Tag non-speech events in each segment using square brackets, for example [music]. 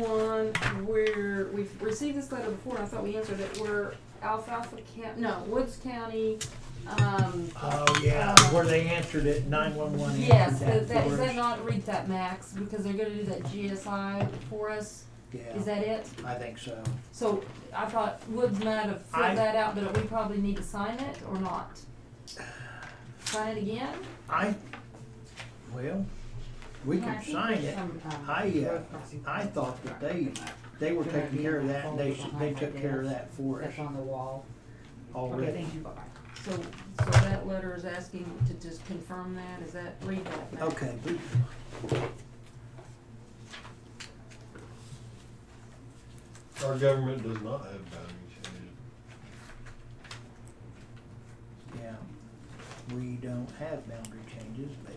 one where we've received this letter before, and I thought we answered it, where Alfalfa County, no, Woods County, um, Oh, yeah, where they answered it, nine-one-one yes, that, answered that that, is for that us. not read that max, because they're gonna do that GSI for us, is Yeah, that it? I think so. So, I thought Woods might have I- filled that out, but we probably need to sign it or not? Sign it again? I, well, we No, I can think sign there's it. some, um, I, uh, road crossing I thought that they, they were Remember taking care of the that, and they, folder s- they behind took my care of desk? that for us That's on the wall. Okay, already. thank you, bye-bye. So, so that letter is asking to just confirm that, is that, read that back? Okay, we- Our government does not have boundaries. yeah, we don't have boundary changes, but,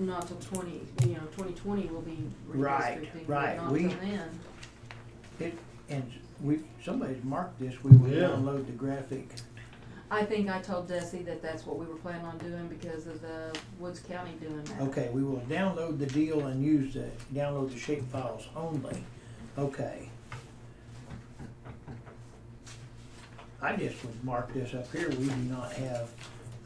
Not till twenty, you know, twenty twenty will be Right, redistricting, but right, not we- till then. and we, somebody's marked this, we will Yeah. download the graphic. I think I told Desi that that's what we were planning on doing because of the Woods County doing that. Okay, we will download the deal and use the, download the shape files only, okay. I just would mark this up here, we do not have,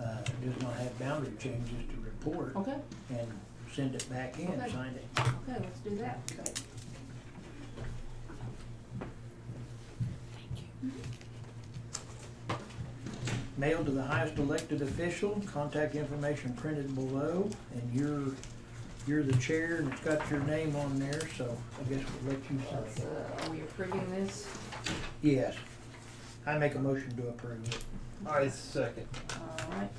uh, does not have boundary changes to report, Okay, and send it back in, Okay. sign it. okay, let's do that. Okay. Mailed to the highest elected official, contact information printed below, and you're, you're the chair, and it's got your name on there, so I guess we'll let you Let's, sign it. uh, are we approving this? Yes. I make a motion to approve it. I second. Alright,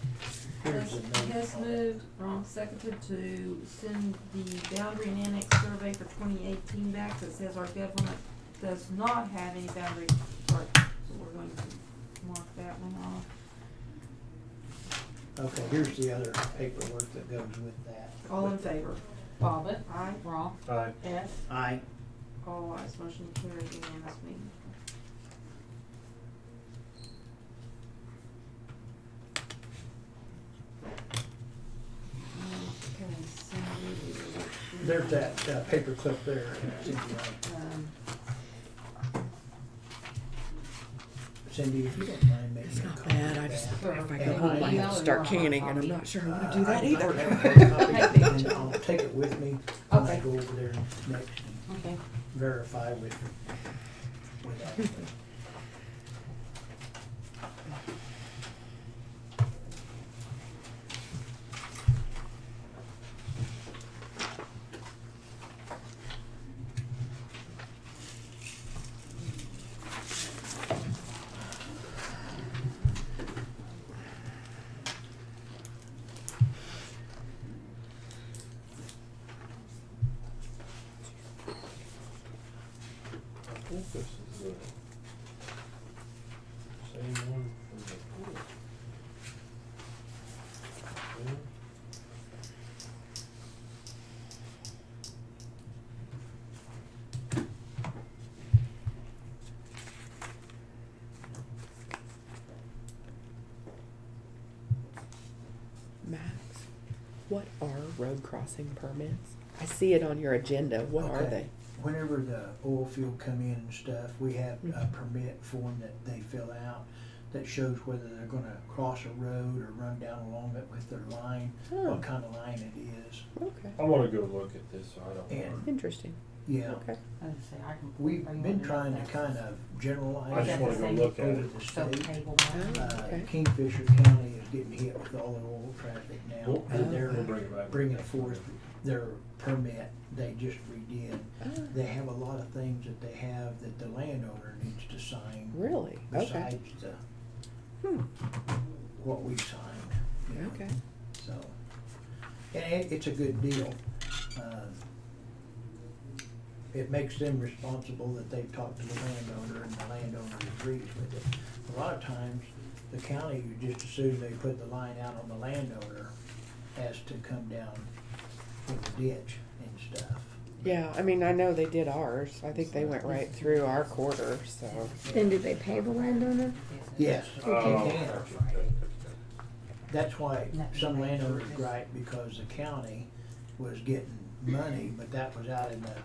Here's the Hess- name Hess on it. moved, wrong seconded to send the boundary and annex survey for twenty eighteen back that says our government does not have any boundary chart, so we're going to mark that one off. Okay, here's the other paperwork that goes with that. All in favor? Bobbit, Aye. wrong, Aye. yes, Aye. All ayes, motion carried unanimously. Okay, so. There's that uh, paperclip there. uh, Um, Cindy, if you don't mind making It's a not copy of bad. I just, that. if I go home, I have to start canning, and I'm not sure I want to do Uh, that I- [laughs] I have [laughs] either. a copy and I'll take it with me when I Okay. go over there next and okay. verify with, with Ashley. I think this is the same one from before. Yeah. Max, what are road crossing permits? I see it on your agenda. What are Okay. they? Whenever the oil field come in and stuff, we have a Mm-hmm. permit form that they fill out that shows whether they're gonna cross a road or run down along it with their line, Oh, what kind of line it is. okay. I wanna go look at this, so I don't. And- wanna- Interesting. Yeah, Okay. I was gonna say, I can- we've are you been wanting trying that? to kind of I generalize that just wanna the go same look at over it. the So state. table one. Oh, Uh, okay. Kingfisher County is getting hit with all the oil traffic now, We'll, we'll- and we'll they're bring it back. bringing forth their permit they just redid. Oh, They have a lot of things that they have that the landowner needs to sign Really? Okay. besides the, Hmm. what we signed. you know, Okay. So, and it, it's a good deal. Uh, It makes them responsible that they've talked to the landowner and the landowner agrees with it. A lot of times, the county, you just assume they put the line out on the landowner as to come down in the ditch and stuff. Yeah, I mean, I know they did ours. I think they went right through our quarter, so. Then do they pay the landowner? Yes, Oh, you okay, can. okay, okay, okay. That's why some landowners gripe because the county was getting money, but that was out in the